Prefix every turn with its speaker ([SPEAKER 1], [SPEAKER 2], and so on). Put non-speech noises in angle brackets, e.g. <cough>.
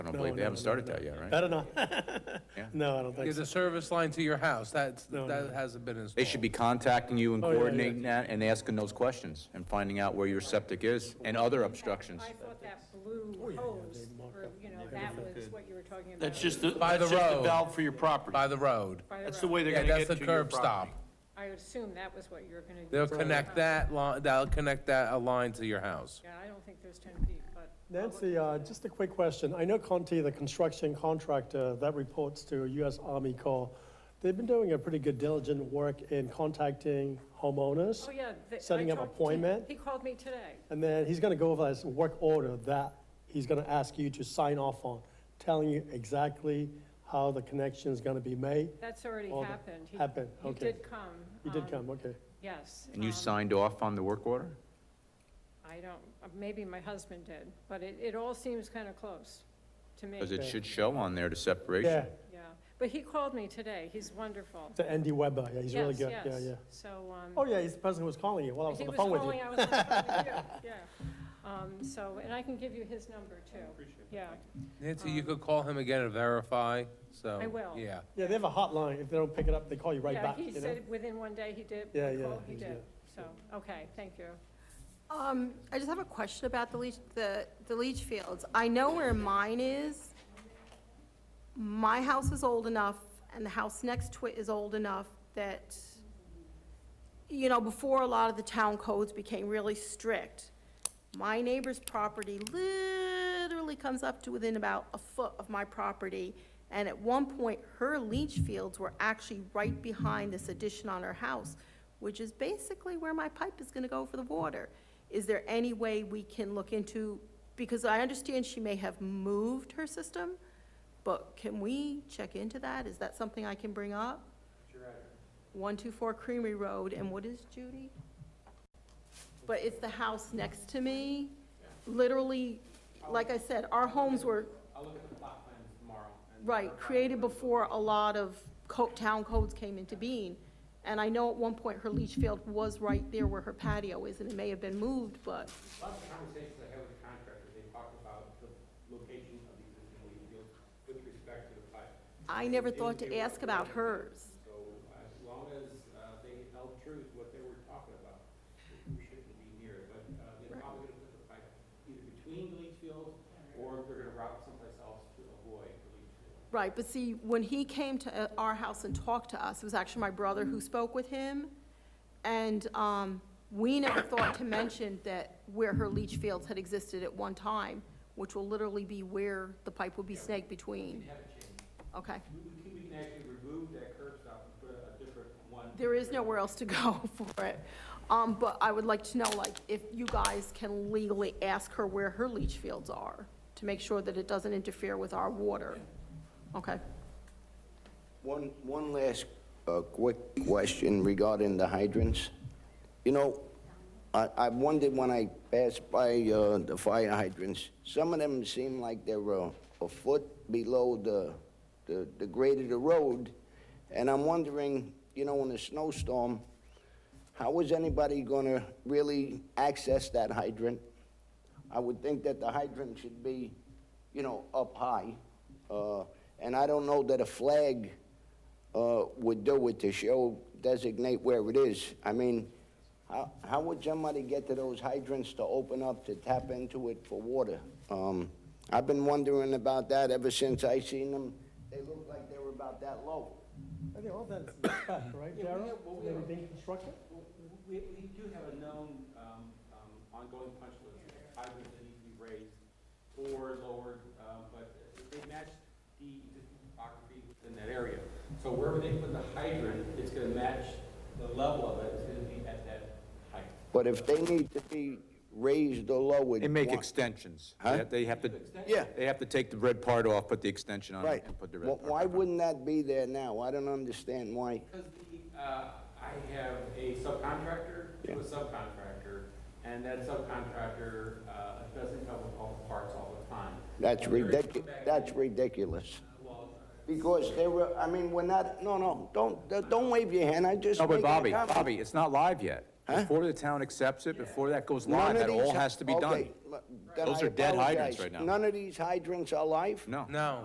[SPEAKER 1] don't
[SPEAKER 2] No,
[SPEAKER 1] believe they
[SPEAKER 2] no,
[SPEAKER 1] haven't
[SPEAKER 2] no,
[SPEAKER 1] started
[SPEAKER 2] no.
[SPEAKER 1] that yet, right?
[SPEAKER 2] I don't know. <laughs>
[SPEAKER 1] Yeah.
[SPEAKER 2] No, I don't think
[SPEAKER 3] There's
[SPEAKER 2] so.
[SPEAKER 3] a service line to your house, that's,
[SPEAKER 2] No,
[SPEAKER 3] that
[SPEAKER 2] no.
[SPEAKER 3] hasn't been installed.
[SPEAKER 1] They should be contacting you and
[SPEAKER 2] Oh, yeah, yeah.
[SPEAKER 1] coordinating that and asking those questions and finding out where your septic is and other obstructions.
[SPEAKER 4] I thought that
[SPEAKER 2] Oh,
[SPEAKER 4] blue hose, or, you know, that was what you were talking about.
[SPEAKER 5] That's just, the-
[SPEAKER 3] By
[SPEAKER 5] that's
[SPEAKER 3] the
[SPEAKER 5] just the
[SPEAKER 3] road.
[SPEAKER 5] valve for your property.
[SPEAKER 3] By the road.
[SPEAKER 4] by
[SPEAKER 5] That's the
[SPEAKER 4] road.
[SPEAKER 5] way they're
[SPEAKER 3] Yeah,
[SPEAKER 5] gonna
[SPEAKER 3] that's
[SPEAKER 5] get
[SPEAKER 3] the
[SPEAKER 5] to your
[SPEAKER 3] curb stop.
[SPEAKER 5] property.
[SPEAKER 4] I would assume that was what you were gonna do.
[SPEAKER 3] They'll connect that line, they'll connect that a line to your house.
[SPEAKER 4] Yeah, I don't think there's ten feet, but.
[SPEAKER 2] Nancy, uh, just a quick question. I know Conti, the construction contractor that reports to US Army Corps, they've been doing a pretty good diligent work in contacting homeowners.
[SPEAKER 4] Oh, yeah. the- I
[SPEAKER 2] uh, Setting up
[SPEAKER 4] talked to-
[SPEAKER 2] appointment?
[SPEAKER 4] He called me today.
[SPEAKER 2] And then he's gonna go over his work order that he's gonna ask you to sign off on, telling you exactly how the connection is gonna be made.
[SPEAKER 4] That's already
[SPEAKER 2] Oh, that
[SPEAKER 4] happened. He-
[SPEAKER 2] happened, okay.
[SPEAKER 4] He did come.
[SPEAKER 2] He did
[SPEAKER 4] um,
[SPEAKER 2] come, okay.
[SPEAKER 4] Yes.
[SPEAKER 1] And you
[SPEAKER 4] um,
[SPEAKER 1] signed off on the work order?
[SPEAKER 4] I don't, maybe my husband did, but it, it all seems kind of close to me.
[SPEAKER 1] Because it should show on there the separation.
[SPEAKER 2] Yeah,
[SPEAKER 4] Yeah, but he called me today. He's wonderful.
[SPEAKER 2] to Andy Weber, yeah, he's really
[SPEAKER 4] Yes,
[SPEAKER 2] good,
[SPEAKER 4] yes.
[SPEAKER 2] yeah, yeah.
[SPEAKER 4] So,
[SPEAKER 2] Oh,
[SPEAKER 4] um,
[SPEAKER 2] yeah, he's the person who was calling you while I was on
[SPEAKER 4] he
[SPEAKER 2] the
[SPEAKER 4] was
[SPEAKER 2] phone with you.
[SPEAKER 4] calling, I was on the phone
[SPEAKER 2] <laughs>
[SPEAKER 4] with you, yeah. Um, so, and I can give you his number too. Yeah,
[SPEAKER 3] Nancy, you could call him again and verify, so.
[SPEAKER 4] I will.
[SPEAKER 3] Yeah.
[SPEAKER 2] Yeah, they have a hotline. If they don't pick it up, they call you right
[SPEAKER 4] yeah,
[SPEAKER 2] back,
[SPEAKER 4] he
[SPEAKER 2] you know?
[SPEAKER 4] said within one day he did,
[SPEAKER 2] Yeah,
[SPEAKER 4] the
[SPEAKER 2] yeah,
[SPEAKER 4] call he
[SPEAKER 2] he's-
[SPEAKER 4] did. So,
[SPEAKER 2] yeah.
[SPEAKER 4] okay, thank you.
[SPEAKER 6] Um, I just have a question about the leach, the, the leach fields. I know where mine is. My house is old enough, and the house next to it is old enough that, you know, before a lot of the town codes became really strict, my neighbor's property literally comes up to within about a foot of my property. And at one point, her leach fields were actually right behind this addition on her house, which is basically where my pipe is gonna go for the water. Is there any way we can look into, because I understand she may have moved her system, but can we check into that? Is that something I can bring up? One two four Creamery Road, and what is Judy? But it's the house next to me, literally, like I said, our homes were. I'll look at the plot plans tomorrow. Right, created before a lot of co- town codes came into being. And I know at one point her leach field was right there where her patio is, and it may have been moved, but,
[SPEAKER 7] A lot of the conversations I had with the contractor, they talked about the location of the existing leach field with respect to the pipe.
[SPEAKER 6] I never thought to ask about hers.
[SPEAKER 7] So as long as uh, they held true to what they were talking about, we shouldn't be near it. But uh, they're probably gonna put the pipe either between the leach fields or they're gonna route someplace else to avoid the leach field.
[SPEAKER 6] Right, but see, when he came to uh, our house and talked to us, it was actually my brother who spoke with him, and um, we never thought to mention that where her leach fields had existed at one time, which will literally be where the pipe will be snagged between.
[SPEAKER 7] Have it changed.
[SPEAKER 6] Okay,
[SPEAKER 7] We we can, we can actually remove that curb stop and put a a different one.
[SPEAKER 6] there is nowhere else to go <laughs> for it. Um, But I would like to know, like, if you guys can legally ask her where her leach fields are, to make sure that it doesn't interfere with our water. Okay,
[SPEAKER 8] One, one last uh, quick question regarding the hydrants. You know, I, I wondered when I passed by uh, the fire hydrants, some of them seem like they were a foot below the, the the grade of the road, and I'm wondering, you know, in a snowstorm, how is anybody going to really access that hydrant? I would think that the hydrant should be, you know, up high. uh, And I don't know that a flag uh, would do it to show, designate where it is. I mean, how how would somebody get to those hydrants to open up, to tap into it for water? Um, I've been wondering about that ever since I seen them. They looked like they were about that low.
[SPEAKER 2] I think all that is in the spec, right,
[SPEAKER 7] Yeah, we
[SPEAKER 2] Darrell?
[SPEAKER 7] have- well, we
[SPEAKER 2] They've
[SPEAKER 7] have-
[SPEAKER 2] been constructed?
[SPEAKER 7] Well, We, we do have a known, um, um, ongoing punch list, of hydrants that need to be raised or lowered, um, but they match the existing topography within that area. So wherever they put the hydrant, it's gonna match the level of it, it's gonna be at that height.
[SPEAKER 8] But if they need to be raised or lowered.
[SPEAKER 1] They make
[SPEAKER 8] one-
[SPEAKER 1] extensions.
[SPEAKER 8] Huh?
[SPEAKER 1] They- They have to,
[SPEAKER 8] Yeah.
[SPEAKER 1] they have to take the red part off, put the extension on
[SPEAKER 8] Right.
[SPEAKER 1] it, and put the red
[SPEAKER 8] Well,
[SPEAKER 1] part back
[SPEAKER 8] Why
[SPEAKER 1] on.
[SPEAKER 8] wouldn't that be there now? I don't understand why.
[SPEAKER 7] Because the, uh, I have a subcontractor to a subcontractor, and that subcontractor, uh, doesn't come with all the parts all the time.
[SPEAKER 8] That's
[SPEAKER 7] There is-
[SPEAKER 8] ridiculous, that's ridiculous. Because they were, I mean, we're not, no, no, don't, don't wave your hand, I just.
[SPEAKER 1] No,
[SPEAKER 8] make
[SPEAKER 1] but
[SPEAKER 8] a
[SPEAKER 1] Bobby,
[SPEAKER 8] comment.
[SPEAKER 1] Bobby, it's not live yet. Before the town accepts it, before that goes
[SPEAKER 8] None
[SPEAKER 1] live,
[SPEAKER 8] of
[SPEAKER 1] that all
[SPEAKER 8] these-
[SPEAKER 1] has to be done.
[SPEAKER 8] okay, m- then
[SPEAKER 1] Those
[SPEAKER 8] I
[SPEAKER 1] are dead hydrants
[SPEAKER 8] apologize.
[SPEAKER 1] right now.
[SPEAKER 8] None of these hydrants are live?
[SPEAKER 1] No.
[SPEAKER 3] No.